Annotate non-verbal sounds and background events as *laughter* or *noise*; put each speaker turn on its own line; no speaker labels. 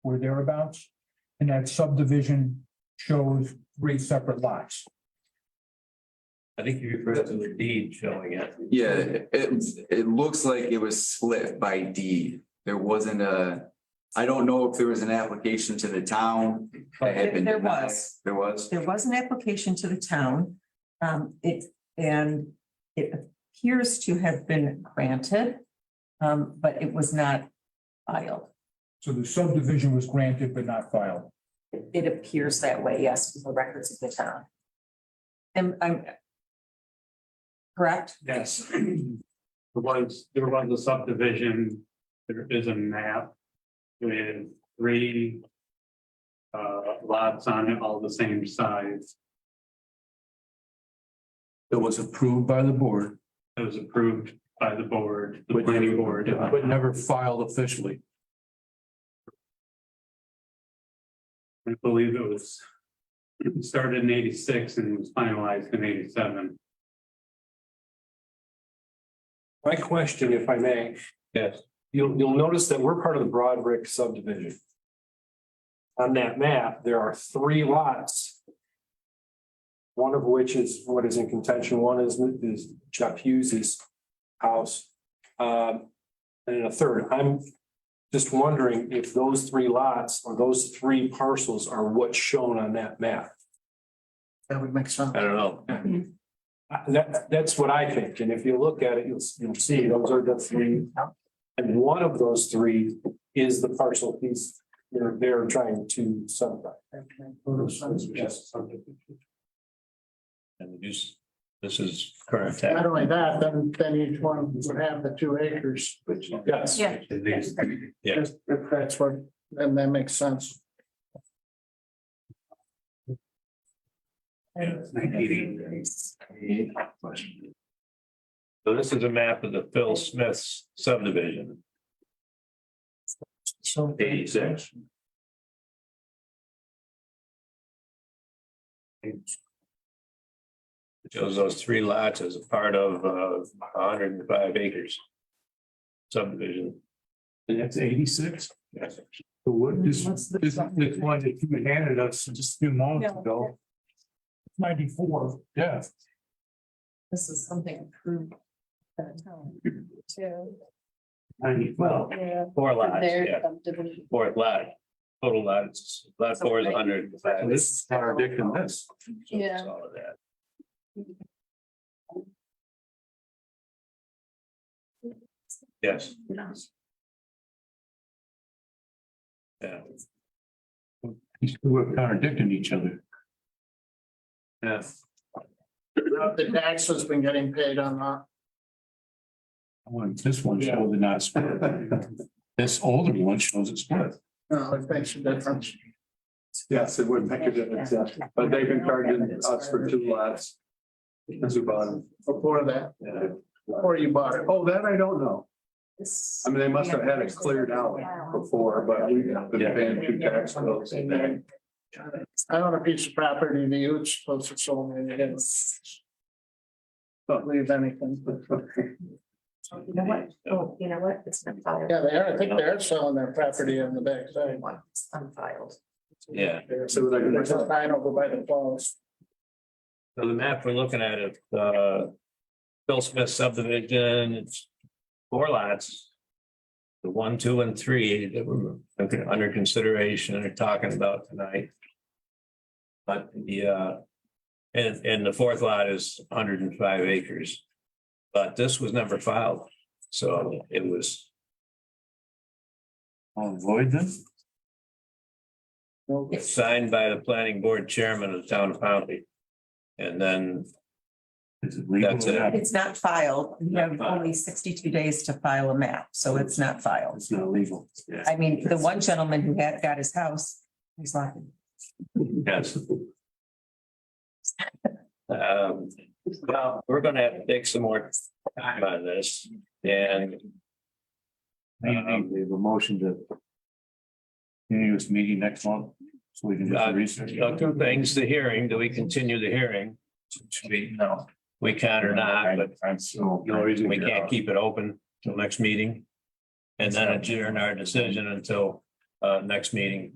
or thereabouts. And that subdivision shows three separate lots.
I think you referred to the deed showing it.
Yeah, it, it looks like it was split by deed. There wasn't a, I don't know if there was an application to the town. that had been
There
denied.
was.
There was?
There was an application to the town. Um, it, and it appears to have been granted. Um, but it was not filed.
So the subdivision was granted but not filed.
It- It appears that way, yes, from the records of the town. And I'm. Correct?
Yes. There was, there was a subdivision, there is a map with three uh, lots on it, all the same size.
It was approved by the board,
It was approved by the board, the
But never-
planning board.
but never filed officially.
I believe it was it started in eighty-six and was finalized in eighty-seven.
My question, if I may.
Yes.
You'll, you'll notice that we're part of the Broadrick subdivision. On that map, there are three lots. One of which is what is in contention, one is, is Jeff Hughes's house. Um, and a third, I'm just wondering if those three lots or those three parcels are what's shown on that map.
That would make sense.
I don't know.
Uh, That, that's what I think, and if you look at it, you'll, you'll see those are the three. And one of those three is the parcel piece they're, they're trying to subdivide. Yes.
And this, this is current tax.
Not only that, then, then each one would have the two acres, which
Yes.
Yeah.
These-
Yeah.
is, if that's what, then that makes sense.
Yeah, it's 1980. So this is a map of the Phil Smith's subdivision,
So
eighty-six. Shows those three lots as a part of uh hundred and five acres. Subdivision.
And that's eighty-six?
Yes.
The wood,
this- Mm, What's the- this- this
one that you handed us just a few moments
Yeah. ago.
Ninety-four. Yeah.
this is something approved. by the town.
too.
Ninety-four.
Yeah.
Four lots, yeah,
Their subdivision.
four lot. Total lots, lot four is hundred and five.
This is contradicting this.
So it's
Yeah.
All of that. Yes. Yeah.
These two are contradicting each other.
Yes.
The tax has been getting paid on that.
One, this one showed the not split.
*laughs*
This older one shows it split.
No, it makes a difference.
Yes, it would make a difference, yeah. but they've been charging us for two lots. As we bought them.
Before that,
Yeah.
before you bought it.
Oh, that I don't know.
This-
I mean, they must have had it cleared out before, but we've been paying two tax bills.
And then I own a piece of property that you were supposed to sell me, and you didn't. Don't leave anything.
You know what? Oh, you know what? It's been filed.
Yeah, they are, I think they're selling their property on the backside.
One, it's unfiled.
Yeah,
So like,
There's a sign over by the falls.
so the map we're looking at is uh Bill Smith subdivision, it's four lots. The one, two, and three that we're looking- under consideration and are talking about tonight. But the uh, and and the fourth lot is hundred and five acres. But this was never filed, so it was
Avoid them.
signed by the planning board chairman of the town of Powndy. And then
Is it legal?
That's
or
it.
not?
It's not filed. You have
Not filed.
only sixty-two days to file a map, so it's not filed.
It's not legal.
I mean, the one gentleman who had, got his house, he's laughing.
Yes. Um, well, we're gonna have to take some more time on this and.
Um,
um,
We have a motion to. Continue this meeting next month, so we can do
Uh,
some research.
uh, Two things, the hearing, do we continue the hearing? Should we- No, we can or not, but
I'm so.
the only reason we can't keep it open till next meeting. And then adjourn our decision until uh, next meeting.